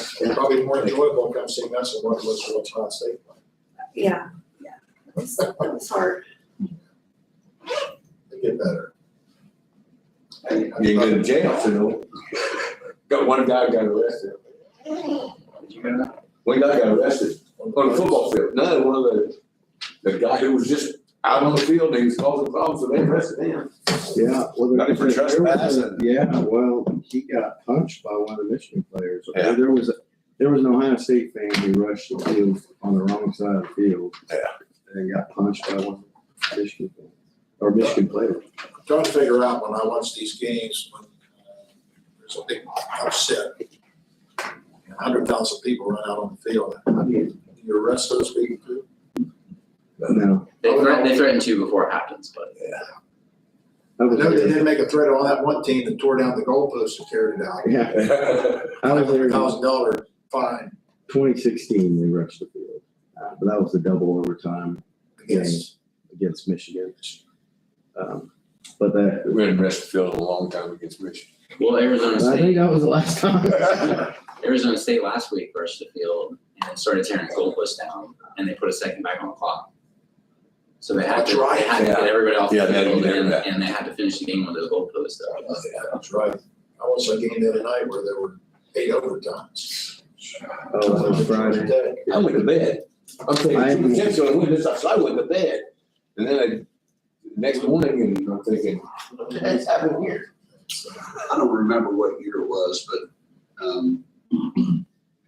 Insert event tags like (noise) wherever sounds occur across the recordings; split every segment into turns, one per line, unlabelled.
It's probably more enjoyable come seeing us than what it was for Wichita State.
Yeah, yeah. It was, it was hard.
They get better. Hey, I-
You go to jail, so. Got one guy got arrested. One guy got arrested on the football field. Another one of the, the guy who was just out on the field and he was causing problems, so they arrested him. (laughs)
Yeah. well,
Not
there-
even
there was a-
trespassing.
Yeah, well, he got punched by one of the Michigan players.
Yeah.
There was, a there was an Ohio State fan who rushed the field on the wrong side of the field.
Yeah.
And got punched by one of the Michigan, fans, or Michigan player.
Trying to figure out when I watch these games, when uh, there's a big upset. A hundred thousand people run out on the field. How do you, do you arrest those people too?
No,
They threaten, they threaten to before it happens, but
that
I
was,
know they
there.
did make a threat on that one team that tore down the goalpost and carried it out.
yeah, I was there
Hundred
in
thousand dollar fine
twenty sixteen, they rushed the field. Uh, But that was the double overtime
against,
against Michigan. Um, But that,
We had arrested Phil a long time against Rich.
well, Arizona
I think
State,
that was the
(laughs)
last time.
Arizona State last week rushed the field and started tearing goalposts down and they put a second back on the clock. So they had
That's
to, they
right.
had to get
Yeah.
everybody off the
Yeah, they had to
field
get
and,
everybody.
and they had to finish the game with those goalposts. up.
uh, that's right. I watched a game the other night where there were eight overtimes.
Oh, it was Friday.
I went to bed. I'm
I-
thinking, Jim's gonna win this, so I went to bed. And then I, next morning, and I'm thinking, what the heck's happened here?
I don't remember what year it was, but, um, (clears throat)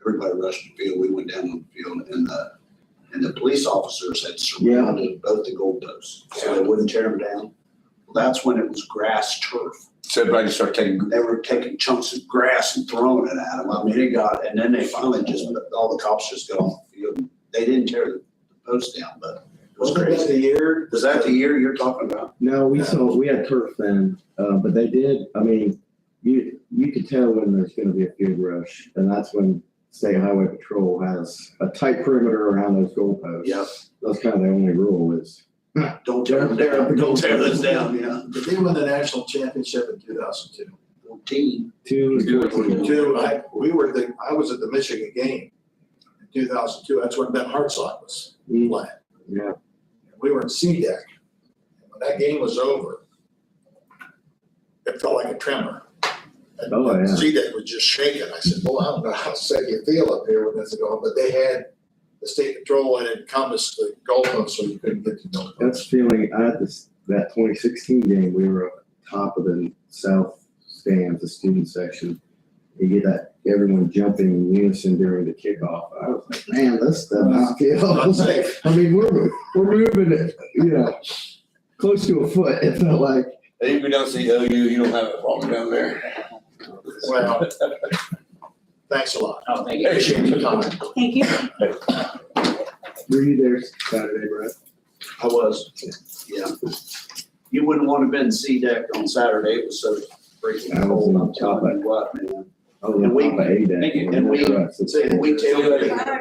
everybody rushed the field, we went down on the field, and the, and the police officers had surrounded both the goalposts, so they wouldn't tear them down. That's when it was grass turf.
So everybody started taking,
They were taking chunks of grass and throwing it at them, I mean, it got, and then they finally just, all the cops just got off the field. They didn't tear the post down, but it was
Wasn't that
crazy.
the year?
Is that the year you're talking about?
No, we saw, we had turf then, uh, but they did, I mean, you, you could tell when there's gonna be a field rush, and that's when State Highway Patrol has a tight perimeter around those goalposts.
Yep.
That's kind of the only rule is,
Don't tear them down, don't tear those down, yeah.
Did they win the national championship in two thousand two?
Fourteen,
two is
Two.
fourteen.
Two, I, we were the, I was at the Michigan game in two thousand two, that's when Ben Hartsock was
Mm,
playing.
Yeah,
We were in C deck. And When that game was over, it felt like a tremor. And
Oh, yeah.
C deck was just shaking. I said, well, I don't know how sick you feel up here when this is going, but they had the state patrol had encompassed the goalpost, so you couldn't get to know.
that's feeling, I had this, that twenty sixteen game, we were up top of the south stands, the student section. You get that, everyone jumping in unison during the kickoff, I was like, man, this stuff is (laughs)
(laughs)
feels like
Unsafe.
I mean, we're, we're moving it, you know, close to a foot, it felt like.
if you don't see OU, you don't have a problem down there.
Well, thanks a lot.
Oh, thank you.
Appreciate your time.
Thank you.
Were you there Saturday, Brett?
I was, yeah. You wouldn't want to have been C deck on Saturday, it was so freaking
I was
cold,
on
I'm
top
telling you what, man.
Oh, yeah,
And we-
Papa ate that.
and we- And we tailgate,
(laughs) Bye.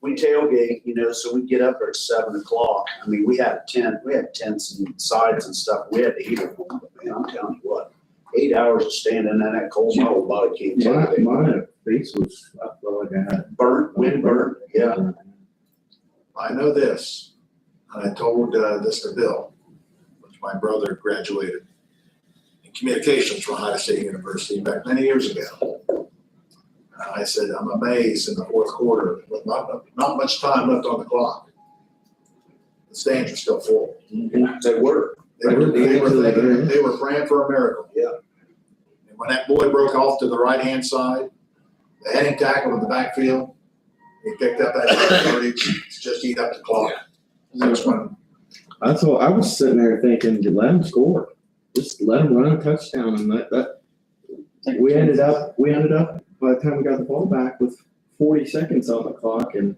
we tailgate, you know, so we get up there at seven o'clock, I mean, we had a tent, we had tents and sides and stuff, we had to heat them, but man, I'm telling you what. Eight hours of standing in that cold, my whole body came
My,
down,
my face was, I felt like I had.
burnt, wind burnt, yeah.
I know this, and I told uh, this to Bill, which my brother graduated in communications from Ohio State University back many years ago. And I said, I'm amazed in the fourth quarter, with not, not much time left on the clock. The stands are still full.
They were,
They were, they were, thinking- they were praying for a miracle.
Yeah.
And when that boy broke off to the right-hand side, the heading tackle in the backfield, he picked up that yardage, just eat up the clock. That's when,
I thought, I was sitting there thinking, let him score, just let him run a touchdown and that, that. We ended up, we ended up, by the time we got the ball back with forty seconds on the clock and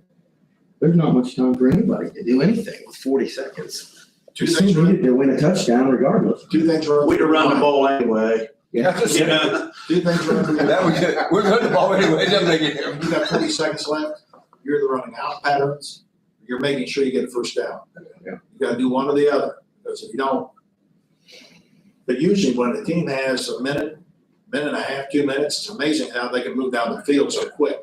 there's not much time for anybody to do anything with forty seconds.
two
Just
things, were-
needed to win a touchdown regardless.
two things were.
We'd have run the ball anyway.
(laughs)
You
That
know,
Two things were.
was good. We're good to ball anyway. It doesn't make it
You got thirty seconds left, you're the running out patterns, you're making sure you get a first down.
Yeah.
You gotta do one or the other, because if you don't. But usually when a team has a minute, minute and a half, two minutes, it's amazing how they can move down the field so quick.